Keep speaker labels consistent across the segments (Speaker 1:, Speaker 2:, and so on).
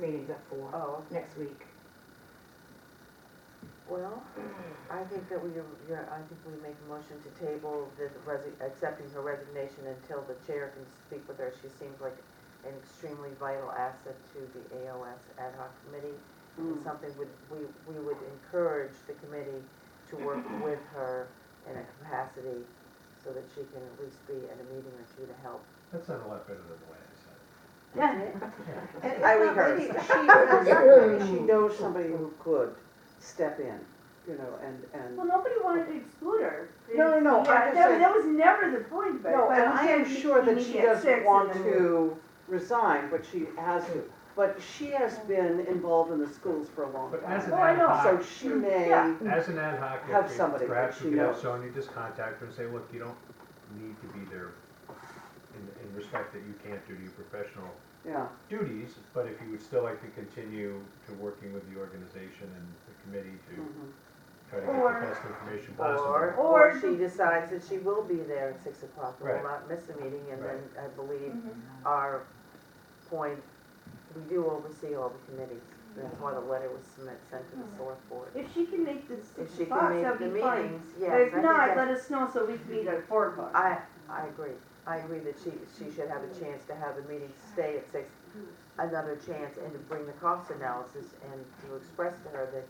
Speaker 1: meeting's at four,
Speaker 2: Oh,
Speaker 1: next week.
Speaker 2: well, I think that we, you're, I think we make a motion to table the resi, accepting her resignation until the chair can speak with her. She seems like an extremely vital asset to the ALS ad hoc committee. It's something would, we, we would encourage the committee to work with her in a capacity so that she can at least be at a meeting or two to help.
Speaker 3: That sounded a lot better than the way I said it.
Speaker 4: And
Speaker 2: I
Speaker 4: it's not
Speaker 2: rehearse.
Speaker 4: maybe She, maybe she knows somebody who could step in, you know, and, and.
Speaker 5: Well, nobody wanted to exclude her.
Speaker 4: No, no, no, I'm
Speaker 5: Yeah,
Speaker 4: just
Speaker 5: that-
Speaker 4: saying-
Speaker 5: That was never the point, but.
Speaker 4: No,
Speaker 5: but
Speaker 4: and
Speaker 5: we
Speaker 4: I
Speaker 5: had
Speaker 4: am
Speaker 5: the
Speaker 4: sure that
Speaker 5: meeting
Speaker 4: she
Speaker 5: at six
Speaker 4: doesn't
Speaker 5: and
Speaker 4: want
Speaker 5: then we-
Speaker 4: to resign, but she has to. But she has been involved in the schools for a long
Speaker 3: But as an
Speaker 4: time.
Speaker 5: Oh, I
Speaker 3: ad
Speaker 5: know.
Speaker 4: So
Speaker 3: hoc,
Speaker 4: she may,
Speaker 5: Yeah.
Speaker 3: as an ad hoc,
Speaker 4: Have
Speaker 3: if we-
Speaker 4: somebody that
Speaker 3: perhaps
Speaker 4: she
Speaker 3: we could have
Speaker 4: knows.
Speaker 3: Sonya just contact her and say, look, you don't need to be there in, in respect that you can't do your professional
Speaker 4: yeah,
Speaker 3: duties, but if you would still like to continue to working with the organization and the committee to
Speaker 4: mhm.
Speaker 3: try to get
Speaker 5: Or-
Speaker 3: the best information
Speaker 2: Or,
Speaker 3: possible.
Speaker 2: or
Speaker 5: Or
Speaker 2: she decides that she will be there at six o'clock and will
Speaker 3: Right.
Speaker 2: not miss a meeting, and then I believe
Speaker 4: Mm-hmm.
Speaker 5: Mhm.
Speaker 2: our point, we do oversee all the committees. That's why the letter was submit, sent to
Speaker 6: Mm-hmm.
Speaker 2: the select board.
Speaker 5: If she can make the
Speaker 2: If
Speaker 5: six
Speaker 2: she
Speaker 5: o'clock,
Speaker 2: can make
Speaker 5: that'd
Speaker 2: the
Speaker 5: be fine.
Speaker 2: meetings, yes.
Speaker 5: But if
Speaker 2: I think
Speaker 5: not,
Speaker 2: that-
Speaker 5: let us know so we can meet at four o'clock.
Speaker 2: I, I agree. I agree that she, she should have a chance to have a meeting, to stay at six, another chance, and to bring the cost analysis and to express to her that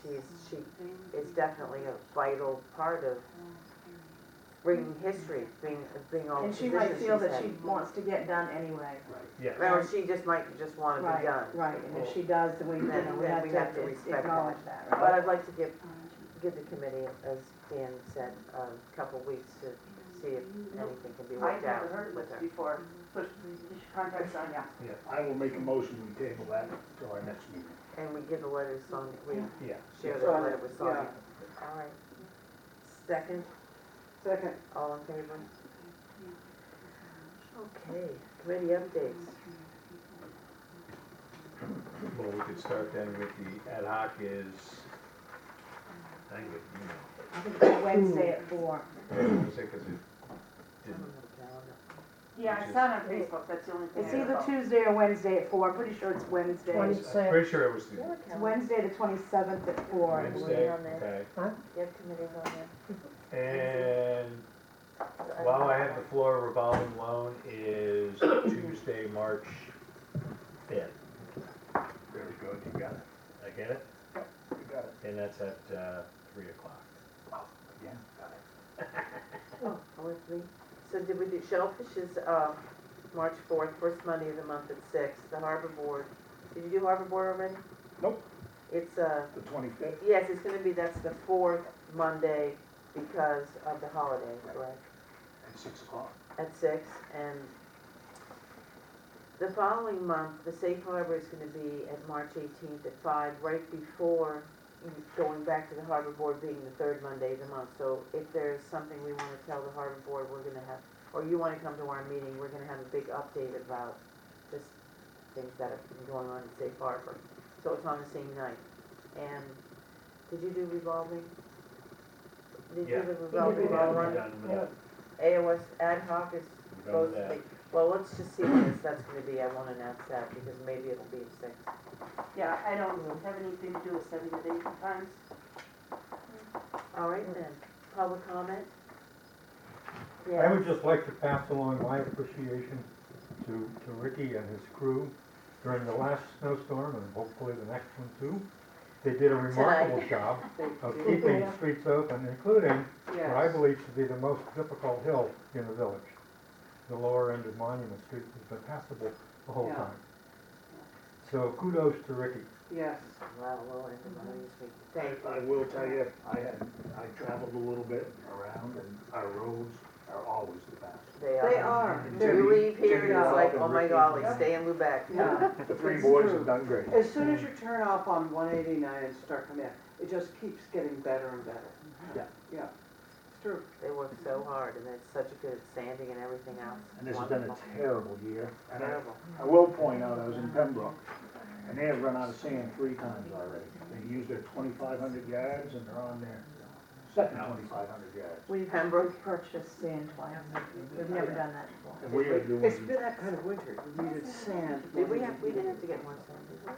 Speaker 2: she's, she is definitely a vital part of bringing history, being, being all the
Speaker 6: And she
Speaker 2: positions
Speaker 6: might
Speaker 2: she's
Speaker 6: feel that
Speaker 2: had.
Speaker 6: she wants to get done anyway.
Speaker 3: Yes,
Speaker 2: Or she just might just want to be done.
Speaker 6: Right, and if she does, then we, you
Speaker 2: Then-
Speaker 6: know, we
Speaker 2: then
Speaker 6: have
Speaker 2: we have to
Speaker 6: to
Speaker 2: respect
Speaker 6: acknowledge that,
Speaker 2: But
Speaker 6: right?
Speaker 2: I'd like to give, give the committee, as Dan said, a couple weeks to see if anything can be
Speaker 5: I've
Speaker 2: worked out
Speaker 5: never heard of
Speaker 2: with
Speaker 5: this
Speaker 2: her.
Speaker 5: before,
Speaker 4: Mm-hmm.
Speaker 5: so you should contact Sonia.
Speaker 3: yeah,
Speaker 7: I will make a motion to table that till our next meeting.
Speaker 2: And we give the letter to Sonia, we
Speaker 3: yeah.
Speaker 2: share the
Speaker 4: Sonia,
Speaker 2: letter with Sonia. All right. Second,
Speaker 4: Second,
Speaker 2: all in favor? Okay, committee updates.
Speaker 3: Well, we could start then with the ad hoc is, I think, it, you
Speaker 6: I think it's Wednesday at four.
Speaker 3: know, I was gonna say, 'cause it
Speaker 2: I don't
Speaker 3: didn't,
Speaker 2: have a calendar.
Speaker 5: Yeah, I saw it on Facebook, that's the only thing.
Speaker 6: It's
Speaker 5: I
Speaker 6: either
Speaker 5: know.
Speaker 6: Tuesday or Wednesday at four, I'm pretty sure it's Wednesday.
Speaker 3: I'm pretty sure it was the
Speaker 6: It's Wednesday, the twenty-seventh at four. and we-
Speaker 3: Wednesday,
Speaker 2: on there.
Speaker 3: okay.
Speaker 2: You have committees on there?
Speaker 3: And while I have the floor, revolving loan is Tuesday, March fifth.
Speaker 7: Very good, you got it,
Speaker 3: I get it?
Speaker 7: you got it.
Speaker 3: And that's at, uh, three o'clock.
Speaker 7: Again, got
Speaker 2: Oh, oh, it's me. So did we do, Shellfish is, uh, March fourth, first Monday of the month at six, the Harbor Board. Did you do Harbor Board already?
Speaker 7: Nope.
Speaker 2: It's, uh,
Speaker 7: it. The twenty-fifth,
Speaker 2: yes, it's gonna be, that's the fourth Monday because of the holiday, correct?
Speaker 7: at six o'clock.
Speaker 2: At six, and the following month, the Safe Harbor is gonna be at March eighteenth at five, right before going back to the Harbor Board being the third Monday of the month. So if there's something we wanna tell the Harbor Board, we're gonna have, or you wanna come to our meeting, we're gonna have a big update about just things that have been going on in Safe Harbor. So it's on the same night. And did you do revolving? Did you
Speaker 3: Yeah.
Speaker 2: do the revolving
Speaker 3: Yeah,
Speaker 2: loan?
Speaker 3: we're done with that.
Speaker 2: AOS ad hoc is
Speaker 3: We're done
Speaker 2: supposed
Speaker 3: with
Speaker 2: to
Speaker 3: that.
Speaker 2: be, well, let's just see what this, that's gonna be, I wanna announce that, because maybe it'll be at six.
Speaker 5: Yeah, I don't have anything to do with seven to eight times.
Speaker 2: All right then, public comment?
Speaker 8: I
Speaker 2: Yeah,
Speaker 8: would just like to pass along my appreciation to, to Ricky and his crew during the last snowstorm and hopefully the next one too. They did a remarkable job
Speaker 4: thank
Speaker 8: of
Speaker 4: you.
Speaker 8: keeping the streets open, including what I
Speaker 4: Yes.
Speaker 8: believe to be the most difficult hill in the village. The lower end of Monument Street has been passable the whole
Speaker 4: Yeah.
Speaker 8: time. So kudos to Ricky.
Speaker 4: Yes,
Speaker 2: wow, well, everybody is big, thank you.
Speaker 7: I will tell you, I had, I traveled a little bit around and our roads are always the best.
Speaker 2: They
Speaker 4: they
Speaker 2: are.
Speaker 4: are.
Speaker 7: They're-
Speaker 2: You leave here, and it's
Speaker 4: Yeah.
Speaker 2: like, oh my golly, stay in Lubec.
Speaker 4: Yeah.
Speaker 7: The three
Speaker 4: That's
Speaker 7: boys
Speaker 4: true.
Speaker 7: have done great.
Speaker 4: As soon as you turn off on one eighty-nine and start coming in, it just keeps getting better and better.
Speaker 7: Yeah.
Speaker 4: Yeah, it's true.
Speaker 2: They work so hard, and it's such a good standing and everything else.
Speaker 7: And this has been a
Speaker 2: Wonderful.
Speaker 7: terrible year. And I,
Speaker 2: Terrible.
Speaker 7: I will point out, I was in Pembroke and they have run out of sand three times already. They used their twenty-five hundred yards and they're on their second twenty-five hundred yards.
Speaker 6: We've
Speaker 2: Pembroke?
Speaker 6: purchased sand twice. We've never done that before.
Speaker 7: And we are doing.
Speaker 4: It's been that kind of winter, we needed sand.
Speaker 2: Did we have, we didn't have to get more sand, did we?